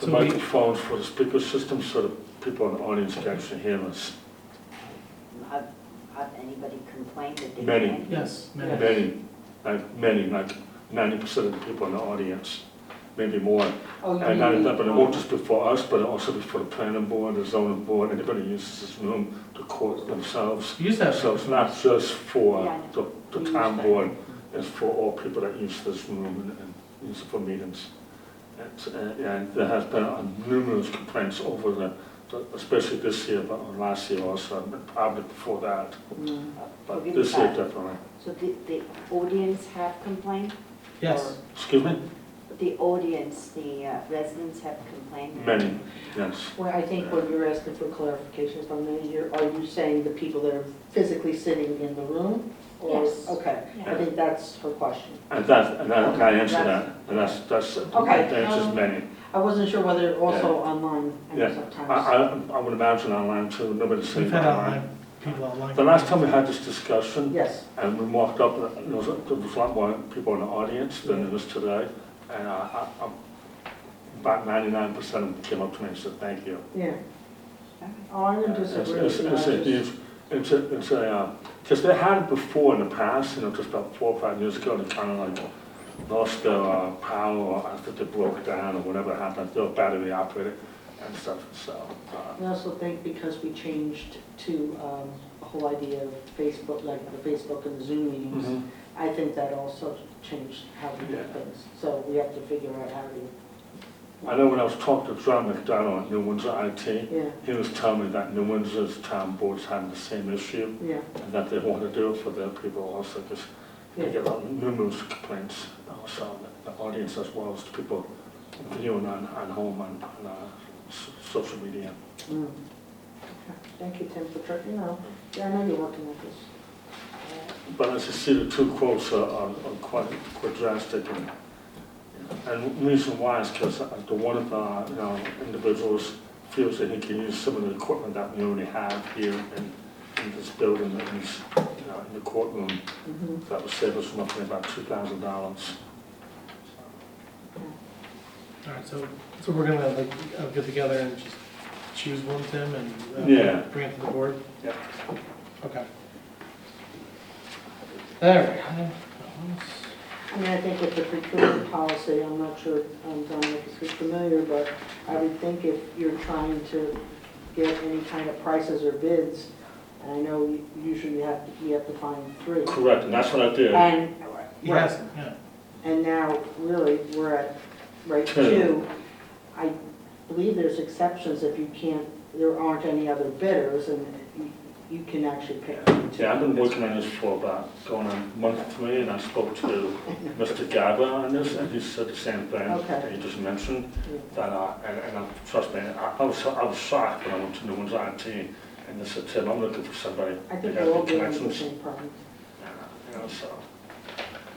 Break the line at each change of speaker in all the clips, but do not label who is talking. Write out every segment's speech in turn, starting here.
the
So we-
microphones for the speaker system so that people in the audience can actually hear us.
Have, have anybody complained that they
Many.
can't?
Yes, many.
Many, like many, like ninety percent of the people in the audience, maybe more.
Oh, you
And not
mean-
enough, but it won't just be for us, but also be for the planning board, the zoning board, anybody who uses this room to court themselves.
Use that.
So it's not just
Yeah, I
for
know.
the, the town board, it's for all people that use this room and, and use it for meetings. And, uh, and there has been uh, numerous complaints over the, the- especially this year, but last year also, and probably before that.
Mm.
But
Forgive
this year
that.
definitely.
So the, the audience have complained?
Yes,
Excuse me?
Or The audience, the uh, residents have complained?
Many, yes.
Well, I think what you're asking for clarification is, on the you're, are you saying the people that are physically sitting in the room? Or-
Yes.
Okay, I
Yeah.
think that's her question.
And that, and that, I answer that, and that's, that's,
Okay,
that answers
um,
many.
I wasn't sure whether also
Yeah.
online, I
Yeah.
know
I,
sometimes.
I, I would imagine online too, nobody's seen
we've had
online.
online, people online.
The last time we had this discussion,
Yes,
and we walked up, and there was, a- there was a lot more people in the audience than there is today, and I, I, I'm- about ninety-nine percent of them came up to me and said, thank you.
yeah. Oh, I'm gonna
It's-
disagree
It's
with you. I
it's a
just-
huge, it's a, it's a, because they had it before in the past, you know, just about four or five years ago, they kind of like lost their uh, power, I think they broke down or whatever happened, they were battery operated and stuff, so. uh,
I also think because we changed to um, the whole idea of Facebook, like the Facebook and Zoom meetings, I think that also changed how we do
Mm-hmm. Yeah.
things. So we have to figure out how to,
I know when I was talking to John McDonald at New Windsor IT,
yeah,
he was telling me that New Windsor's town board's having the same issue
yeah.
and that they want to do it for their people also, because they
Yeah.
get numerous complaints also, on the the audience as well as the people viewing on, on home and, on uh, s- social media.
Mm. Okay. Thank you, Tim, for, tr- you know, yeah, I know you're working with this.
But as you see, the two quotes are, are are quite, quite drastic and, and the reason why is because the one of our, you know, individuals feels that he can use some of the equipment that we already have here in, in this building that is, you know, in the courtroom,
Mhm.
that would save us roughly about two thousand dollars.
All right, so, so we're gonna like, uh, get together and just choose one, Tim, and. uh,
Yeah.
Bring it to the board?
Yep.
Okay. There we go.
I mean, I think with the procurement policy, I'm not sure, um, Dominic, if you're familiar, but I would think if you're trying to get any kind of prices or bids, and I know you- usually you have, to- you have to find three.
Correct, and that's what I did.
And,
Yes, yeah.
and now really, we're at rate
Two.
two. I believe there's exceptions if you can't, there aren't any other bidders, and you- you can actually pick.
Yeah, I've been working on this for about going on month three, and I spoke to Mr. Gaba on this, and he said the same thing that
Okay.
you just mentioned.
Yeah.
That, I- and, and I- trust me, I I was, so- I was shocked when I went to New Orleans IT, and they said, Tim, I'm looking for somebody.
I
that
think
has
they're all
the
dealing with the
connections."
same problem.
You know, so,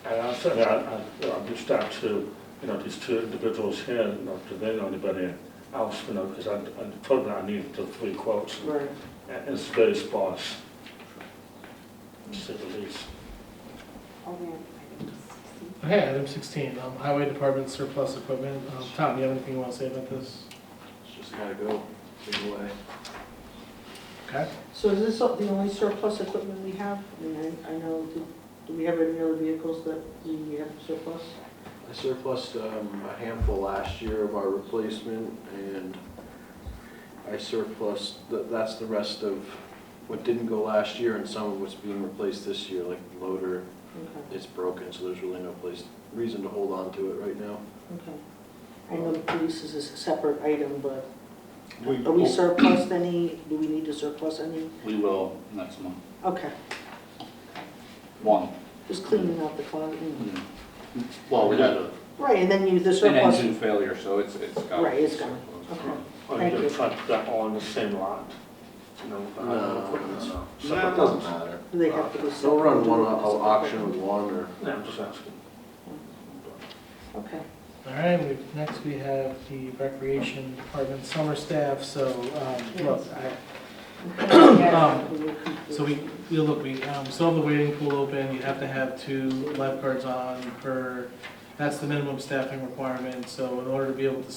and I said, I, I, I reached out to, you know, these two individuals here, you know, do they know anybody else, you know, because I, I told them I needed the three quotes, and
Right.
it's very sparse, to say the least.
Oh, yeah, I think it's 16.
Okay, item sixteen, um, highway department surplus equipment. Um, Tom, you have anything you wanna say about this?
It's just gotta go, lead the way.
Okay.
So is this the only surplus equipment we have? I mean, I I know, do do we have any other vehicles that we have surplus?
I surplused um, a handful last year of our replacement, and I surplused, th- that's the rest of what didn't go last year, and some of what's being replaced this year, like the loader,
Okay,
it's broken, so there's really no place, reason to hold on to it right now.
okay. I know the police is a separate item, but
We
are we
will,
surplus any, do we need to surplus any?
we will next month.
Okay,
One.
just cleaning out the closet. mm.
Well, we had a-
Right, and then you, the
an
surplus.
engine failure, so it's, it's got.
Right, it's gone. Okay.
Are you
Thank
gonna
you.
try to put that all on the same lot? You know, with the other equipment?
No,
Separate
it doesn't matter.
Do they have to be
They'll run one,
separate?
I'll auction with one, or
No, I'm just asking.
Okay.
All right, we, next we have the recreation department summer staff, so, um, look, I, Um, So we, we look, we um, still have the waiting pool open, you have to have two lifeguards on per, that's the minimum staffing requirement, so in order to be able to